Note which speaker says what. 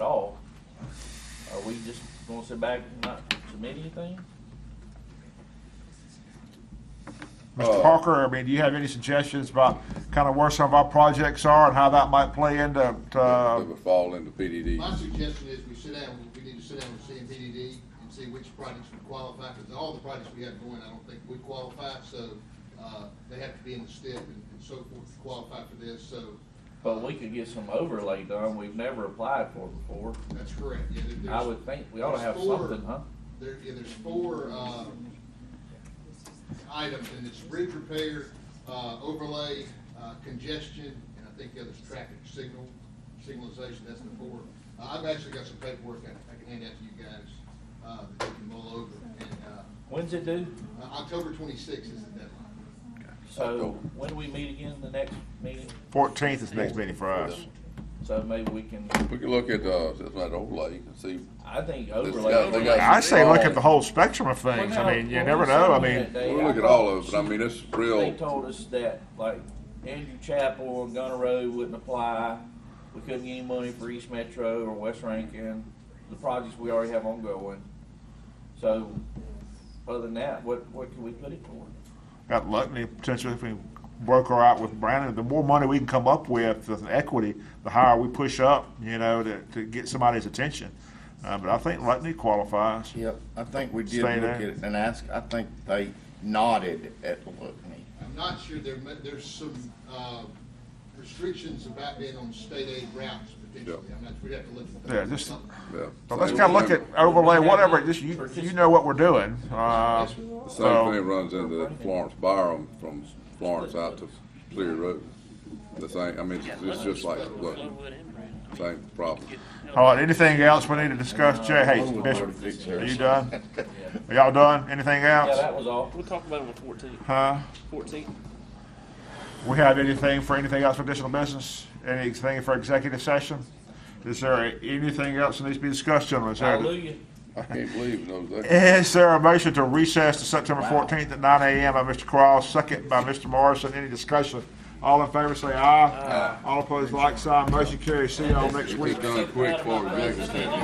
Speaker 1: Gonna sit back and not submit anything?
Speaker 2: Mr. Parker, I mean, do you have any suggestions about kind of where some of our projects are and how that might play into, uh,
Speaker 3: That
Speaker 2: to,
Speaker 3: would fall into
Speaker 4: My
Speaker 3: PDD.
Speaker 4: suggestion is we sit down, we need to sit down with CMPDD and see which projects would qualify, because all the projects we have going, I don't think would qualify, so, uh, they have to be in the step and and so forth to qualify for this, so,
Speaker 1: But we could get some overlay done we've never applied for before.
Speaker 4: that's correct, yeah. there-
Speaker 1: I
Speaker 4: there's-
Speaker 1: would think we ought to have
Speaker 4: there's four-
Speaker 1: something, huh?
Speaker 4: There, yeah, there's four, uh, items, and it's bridge repair, uh, overlay, uh, congestion, and I think the other's traffic signal, signalization, that's the four. Uh, I've actually got some paperwork I, I can hand out to you guys, uh, that you can mull over, and, uh,
Speaker 1: When's it due?
Speaker 4: uh, October twenty-sixth is the deadline.
Speaker 1: So
Speaker 3: October.
Speaker 1: when do we meet again? The next meeting?
Speaker 2: fourteenth is next meeting for us.
Speaker 1: So maybe we can,
Speaker 3: We can look at, uh, that's not overlay, you can see,
Speaker 1: I think
Speaker 3: got- they
Speaker 1: overlay.
Speaker 3: got-
Speaker 2: I say look at the whole spectrum of things. I mean, you never know. I mean,
Speaker 3: we'll look at all of it, but I mean, it's
Speaker 1: They
Speaker 3: real,
Speaker 1: told us that like Andrew Chapel and Gunner Road wouldn't apply. We couldn't get any money for East Metro or West Rankin, the projects we already have ongoing. So other than that, what, what can we put it for?
Speaker 2: got lucky potentially if we broker out with Brandon, the more money we can come up with, with equity, the higher we push up, you know, to, to get somebody's attention. Uh, but I think Lutney qualifies.
Speaker 5: Yep, I think we did
Speaker 2: Stay
Speaker 5: look
Speaker 2: there.
Speaker 5: at it and ask, I think they nodded at Lutney.
Speaker 4: I'm not sure there, ma- there's some, uh, restrictions about being on state aid routes potentially, I'm not, we'd have to look at that.
Speaker 2: Yeah, just-
Speaker 3: yeah.
Speaker 2: So let's kind of look at overlay, whatever, just you, you know what we're doing. Uh,
Speaker 3: The Same
Speaker 2: so,
Speaker 3: thing runs into Florence Byram from Florence out to Clear Road. The same, I mean, it's- it's just like, look, same problem.
Speaker 2: all right, anything else we need to discuss? Jay, hey, Bishop, are you done? Are y'all done? Anything
Speaker 1: Yeah,
Speaker 2: else?
Speaker 1: that was all.
Speaker 6: We'll talk about it on the fourteenth.
Speaker 2: Huh?
Speaker 6: Fourteenth.
Speaker 2: We have anything for anything else for additional business? Anything for executive session? Is there anything else that needs to be discussed, gentlemen? Is there,
Speaker 1: Hallelujah.
Speaker 3: I can't believe those,
Speaker 2: is there a motion to recess to September fourteenth at nine AM by Mr. Cross, second by Mr. Morrison? Any discussion? All in favor, say aye. All opposed, like sign. Motion carries. See y'all next
Speaker 3: it's
Speaker 2: week.
Speaker 3: done quick for executive session.